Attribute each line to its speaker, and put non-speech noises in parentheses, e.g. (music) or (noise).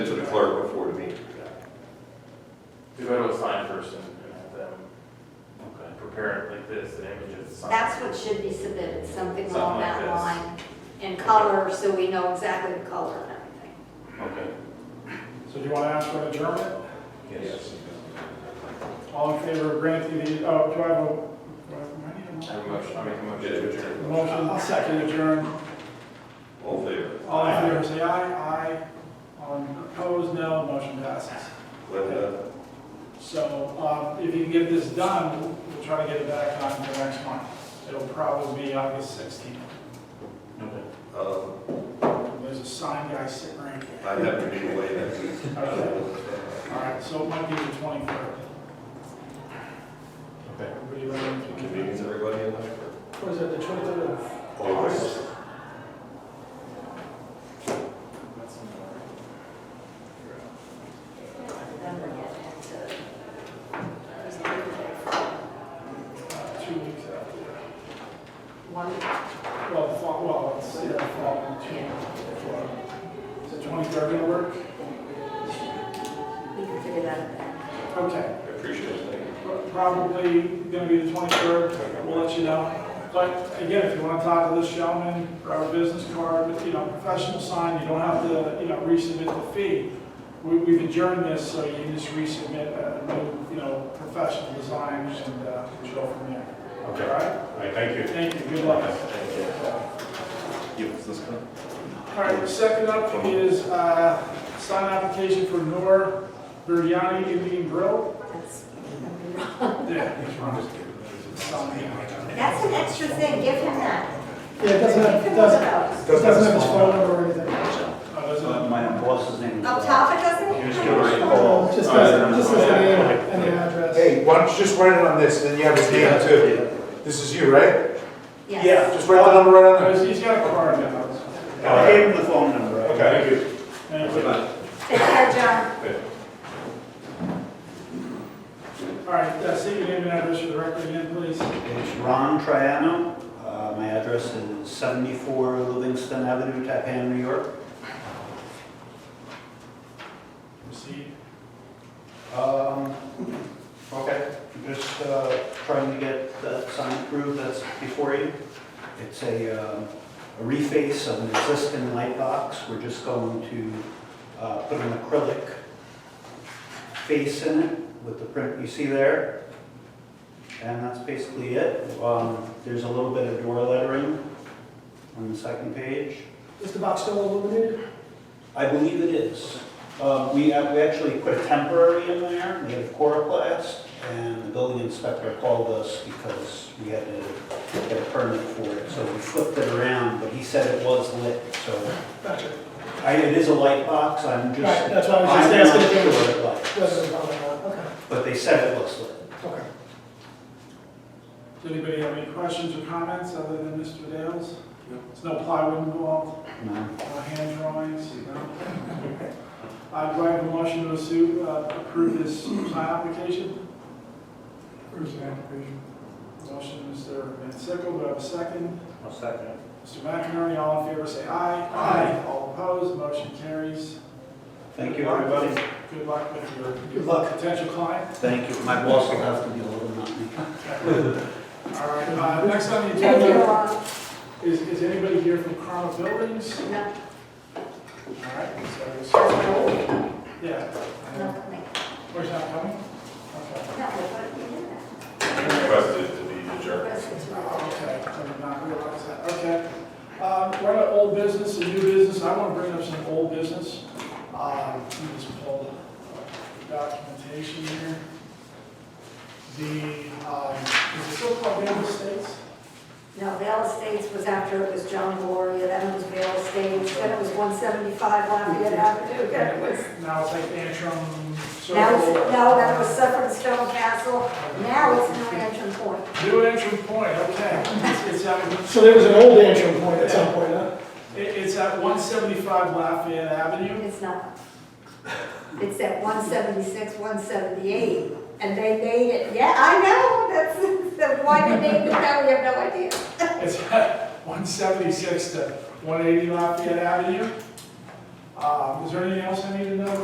Speaker 1: clerk before the meeting.
Speaker 2: To go to a sign person and have them prepare it like this, an image of the sign.
Speaker 3: That's what should be submitted, something along
Speaker 2: Something like
Speaker 3: that
Speaker 2: this.
Speaker 3: line, in color, so we know exactly the color and everything.
Speaker 2: Okay.
Speaker 4: So do you want to ask for an adjournment?
Speaker 1: Yes.
Speaker 4: All in favor of granting the, oh, do I have a, do I have-
Speaker 2: I
Speaker 4: do
Speaker 2: have
Speaker 4: I need
Speaker 2: a motion, I'll make a motion to
Speaker 4: a
Speaker 2: adjourn.
Speaker 4: motion? Motion, second adjourn.
Speaker 1: All in favor?
Speaker 4: All in favor, say aye. Aye. All opposed, no. Motion passes.
Speaker 1: Linda?
Speaker 4: So um, if you can get this done, we'll try to get it back on for next month. It'll probably be August 16th.
Speaker 1: Um,
Speaker 4: There's a sign guy sitting right here.
Speaker 1: I have to be away that week.
Speaker 4: All right, so it might be the 23rd.
Speaker 2: Okay.
Speaker 4: Everybody ready?
Speaker 1: Convenience, everybody in Lynchburg.
Speaker 4: What is it, the 23rd of?
Speaker 1: Always.
Speaker 2: That's
Speaker 3: Then we're getting into-
Speaker 4: uh, Two weeks after.
Speaker 3: One,
Speaker 4: Well, the fall, well, it's, yeah, the fall, two, four. Is it 23rd gonna work?
Speaker 3: we can figure that out then.
Speaker 4: Okay.
Speaker 1: I appreciate it, thank you.
Speaker 4: Probably gonna be the 23rd, we'll let you know. But again, if you wanna talk to this gentleman, grab a business card, you know, professional sign, you don't have to, you know, resubmit the fee. We, we've adjourned this, so you can just resubmit a new, you know, professional design and, uh, we'll go from there.
Speaker 2: Okay.
Speaker 4: All right?
Speaker 2: All right, thank you.
Speaker 4: Thank you, good luck.
Speaker 2: Thank you.
Speaker 4: All right, second up is, uh, sign application for Nor Biryani Indian Grill.
Speaker 3: That's
Speaker 4: Yeah, that's right.
Speaker 3: that's an extra thing, give him that.
Speaker 4: Yeah, it doesn't have,
Speaker 3: Give him
Speaker 4: it
Speaker 3: one
Speaker 4: doesn't,
Speaker 3: of those.
Speaker 4: it doesn't have his phone number or anything. Oh, does it?
Speaker 5: My boss's name is.
Speaker 3: Up top, it doesn't?
Speaker 2: Here's
Speaker 4: Oh, Just as, just as the name and the address.
Speaker 6: Hey, why don't you just write it on this, then you have his name too. This is you, right?
Speaker 3: Yes.
Speaker 6: Just write the number right on it.
Speaker 4: Because Uh, he's got a card now.
Speaker 5: I gave him the phone number.
Speaker 2: Okay, thank you.
Speaker 4: Thank you.
Speaker 3: Take care, John.
Speaker 4: All right, uh, state your name and address for the record again, please.
Speaker 5: It's Ron Triano. Uh, My address is 74 Livingston Avenue, Tappan, New York.
Speaker 4: Proceed.
Speaker 5: Um, Okay, just uh, trying to get that sign approved that's before you. It's a um, a reface of an existing light box. We're just going to uh, put an acrylic face in it with the print you see there. And that's basically it. Um, There's a little bit of door lettering on the second page.
Speaker 4: Is the box still illuminated?
Speaker 5: I believe it is. Uh, We uh, we actually put a temporary in there, we had a coroplast, and the building inspector called us because we had to get a permit for it, so we flipped it around, but he said it was lit, so
Speaker 4: Gotcha.
Speaker 5: I- it is a light box, I'm just...
Speaker 4: Right, that's why I was just asking if it
Speaker 5: I'm not
Speaker 4: was-
Speaker 5: sure what it lights,
Speaker 4: Doesn't bother me.
Speaker 5: but they said it was lit.
Speaker 4: Okay, okay. Does anybody have any questions or comments other than Mr. Dale's? No. There's no plywood involved,
Speaker 5: No.
Speaker 4: no hand drawings, no?
Speaker 5: (laughs)
Speaker 4: I do I have a motion to assume, uh, approve this sign application? Approve the application. Motion, Mr. Van Sickle, do I have a second?
Speaker 5: I'll second it.
Speaker 4: Mr. McInerney, all in favor, say aye. Aye. All opposed, motion carries.
Speaker 5: Thank you, everybody.
Speaker 4: Good luck with your.
Speaker 5: Good luck.
Speaker 4: Potential client.
Speaker 5: Thank you. My boss will have to be a little nutty.
Speaker 4: All right, uh, next on the
Speaker 3: Thank you,
Speaker 4: agenda
Speaker 3: Ron.
Speaker 4: is, is anybody here from Chroma Buildings?
Speaker 3: No,
Speaker 4: All right, so, it's- yeah,
Speaker 3: no,
Speaker 4: uh,
Speaker 3: thank
Speaker 4: where's that coming? Okay,
Speaker 3: you. No, but you did that.
Speaker 1: Requested to be adjourned.
Speaker 3: Rest is wrong.
Speaker 4: okay, I did not realize that, okay. Um, we're at old business and new business, I want to bring up some old business. Um, let me just pull the documentation here. The, um, is it still called Real Estates?
Speaker 3: No, Vale Estates was after it was John Gloria, then it was Vale Estates, then it was 175 Lafayette Avenue, then it was,
Speaker 4: Now it's like Antrim
Speaker 3: now it's,
Speaker 4: Circle.
Speaker 3: no, then it was Suffolk Stone Castle, now it's New Antrim Point.
Speaker 4: New entry point, okay. It's- It's at,
Speaker 7: So there was an old Antrim point at some point, huh?
Speaker 4: it- it's at one seventy-five Lafayette Avenue.
Speaker 3: It's not. It's at 176, 178, and they made it, yeah, I know, that's, that's why they named it that, we have no idea.
Speaker 4: It's at one seventy-six to one eighty Lafayette Avenue. Uh, is there Um, anything else I need to know